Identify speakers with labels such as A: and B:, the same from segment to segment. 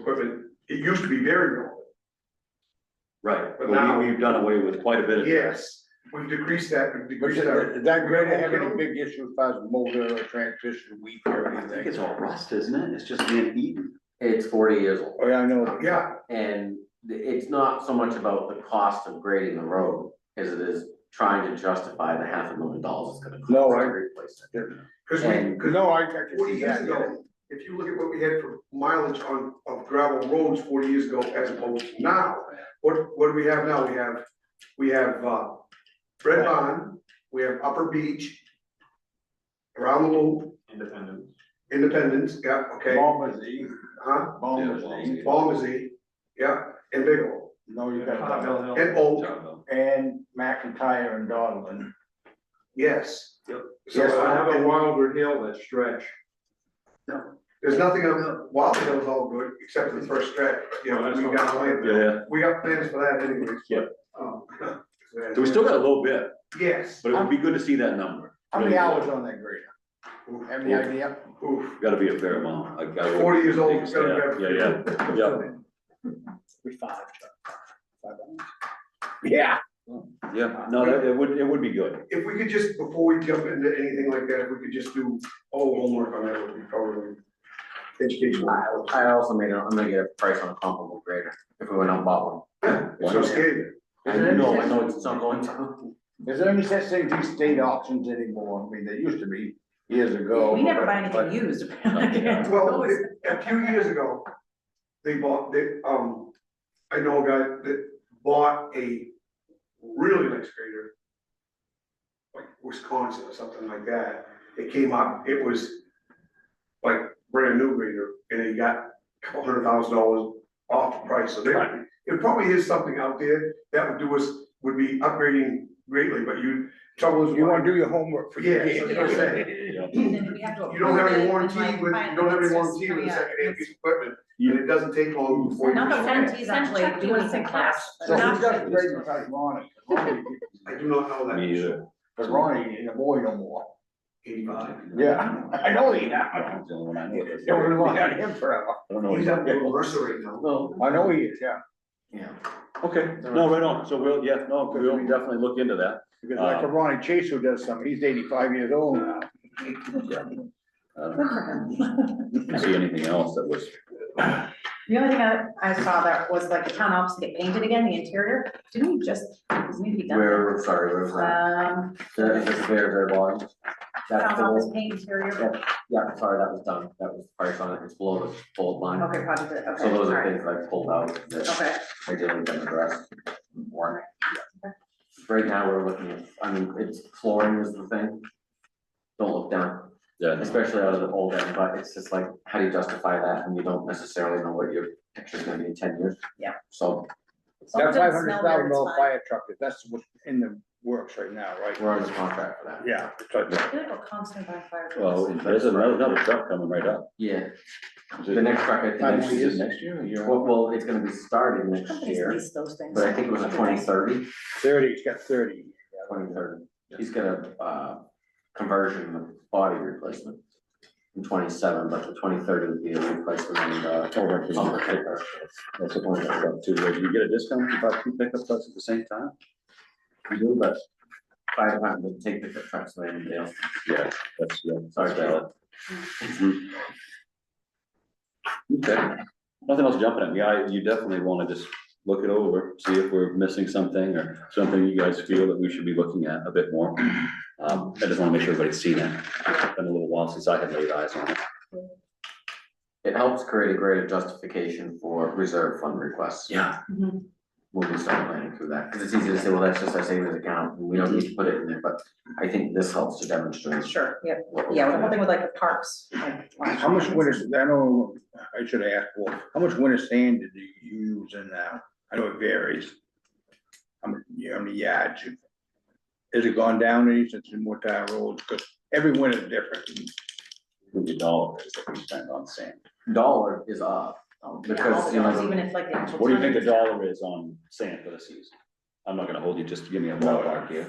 A: equipment, it used to be very relevant.
B: Right,
A: But now-
B: well, we, we've done away with quite a bit of. that.
A: Yes, we've decreased that, we've
C: But is
A: decreased
C: that-
A: our.
C: is that great to have any big issue as far as motor or transmission weak or
B: I think
C: anything?
B: it's all rust, isn't it? It's just being eaten.
D: It's forty years old,
C: Oh, yeah, I know.
A: Yeah,
D: and th- it's not so much about the cost of grading the road as it is trying to justify the half a million dollars it's gonna cost
C: No,
D: to
C: I-
D: replace it.
A: cause we,
D: And-
A: cause
C: No, I, I can
A: forty
C: see
A: years
C: that, yeah.
A: ago, if you look at what we had for mileage on, of gravel roads forty years ago as opposed to now, what, what do we have now? We have, we have, uh, Red Bond, we have Upper Beach, around the loop,
E: Independent.
A: Independence, yeah, okay,
C: Bombers eat,
A: huh?
C: bombers
B: Yeah.
C: eat.
A: Balmazy, yeah, and Big O,
C: No, you got that.
A: and Oak,
C: And McIntyre and Donlin.
A: yes.
E: Yep.
A: So I have a,
E: Wilder Hill that stretch.
A: there's nothing, on- Wild Hill's all good, except for the first stretch, you know, we got plans,
B: Yeah,
A: we got plans for that anyways.
B: Yeah.
A: Um,
B: so we still got a little bit,
A: Yes,
B: but it would be good to see that number.
C: How many hours on that grader? Have any idea?
A: oof,
B: Gotta be a fair amount. I gotta.
A: forty years old, it's gonna
B: Yeah,
A: grab.
B: yeah, yeah. yeah.
C: We five. Yeah.
B: Yeah, no, that, it would, it would be good.
A: If we could just, before we jump into anything like that, if we could just do all homework on that, would be probably educational.
D: I also made, a- I'm gonna get a price on a comparable grader if we went out and bought
A: It's so scary.
D: one. I know, I know it's not going to.
C: Is there any such thing as these state auctions anymore? I mean, there used to be years ago.
F: We never buy
C: but-
F: anything used.
A: Well, a- a few years ago, they bought, they, um, I know a guy that bought a really nice grader. Like Wisconsin or something like that, it came up, it was like brand new grader, and he got a couple hundred thousand dollars off the price, so there, it probably is something out there that would do us, would be upgrading greatly, but you, trouble is.
C: You wanna do your homework for
A: Yeah,
C: your
A: that's what I'm saying.
F: You
A: You don't have any warranty with, you don't have any warranty with a secondhand piece of equipment, and it doesn't take long before you.
F: Not the
A: destroy it.
F: warranties actually do anything class.
C: So who does grade besides Ronnie? Ronnie?
A: I do not know that.
B: Me either.
C: Cause Ronnie ain't a boy no more.
A: Eighty-five.
C: Yeah, I know he
B: I don't
C: not.
B: know when I know this.
C: Don't rely on him forever.
B: I don't know.
A: He's up in Mercer right now.
D: No.
C: I know he is, yeah.
D: Yeah.
B: Okay, no, right on. So we'll, yeah, no, we'll definitely look into that.
C: Because like a Ronnie Chase who does something, he's eighty-five years old now.
B: I don't See anything else that was,
F: The only thing I, I saw that was like the town office get painted again, the interior, didn't we just, was maybe done?
D: Where, sorry, where's that?
F: Um,
D: That is a very, very long. That's
F: town
D: the
F: office
D: whole,
F: paint interior,
D: yeah, yeah, sorry, that was done. That was the price on it. It's below the bold line.
F: Oh, okay, project, okay,
D: So those are
F: alright,
D: things that I pulled out that
F: okay.
D: I didn't address. Warrant. Right now, we're looking at, I mean, it's flooring is the thing. Don't look down,
B: yeah,
D: especially out of the old end, but it's just like, how do you justify that when you don't necessarily know what your picture's gonna be in ten years?
F: Yeah.
D: So
F: As long
C: That
F: as it doesn't
C: five hundred
F: smell weird,
C: thousand
F: it's
C: dollar
F: fine.
C: fire truck, that's what's in the works right now, right?
D: we're under contract for that.
C: Yeah. it's like
F: I feel like we're constantly buying fire
B: well,
F: trucks.
B: there's another, another truck coming right up.
D: Yeah,
B: Is it-
D: the next truck, I
C: Five
D: think, next
C: years.
D: year,
B: next year, or year?
D: well, well, it's gonna be starting next
F: Companies
D: year,
F: lease those things.
D: but I think it was a twenty thirty.
C: Thirty, it's got thirty.
D: twenty thirty. He's got a, uh, conversion of body replacement in twenty-seven, but the twenty thirty would be a replacement and, uh,
B: Over to
D: on the
B: the pickup.
D: paper.
B: That's the point I got too. Do you get a discount if you buy two pickup trucks at the same time?
D: We do, but fire department would take the trucks away and they'll,
B: Yeah, that's, yeah,
D: sorry,
B: that's valid. Okay, nothing else jumping at me. I, you definitely wanna just look it over, see if we're missing something or something you guys feel that we should be looking at a bit more. Um, I just wanna make sure everybody's seen it. It's Been a little while since I had laid eyes on it.
D: it helps create a greater justification for reserve fund requests.
B: Yeah.
F: Mhm.
D: When we start planning through that, because it's easy to say, well, that's just our savings account, and we don't need to put it in there, but I think this helps to demonstrate.
F: Mm-hmm. Sure, yeah,
D: what we're
F: yeah,
D: doing.
F: we're helping with like the parks, like.
C: How much winter, I know, I should ask, well, how much winter sand did you use in that? I know it varies. How many, how many yards? you- Has it gone down any since the Mortar Road? Because every winter's different.
B: With the dollars that we spend on sand.
D: Dollar is up, um,
F: Yeah, all
D: because,
F: the
D: you know.
F: dogs, Even if like the actual.
B: What do you think the
F: tonnage-
B: dollar is on sand for the season? I'm not gonna hold you, just give me a ballpark here.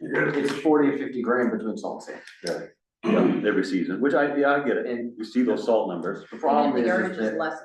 D: It's forty or fifty grand between salt and sand.
B: Really? you know, every season, which I, yeah, I get it.
D: And
B: You see those salt numbers.
D: the
F: And
D: problem
F: then
D: is,
F: the
D: is
F: yardage
D: that-
F: is less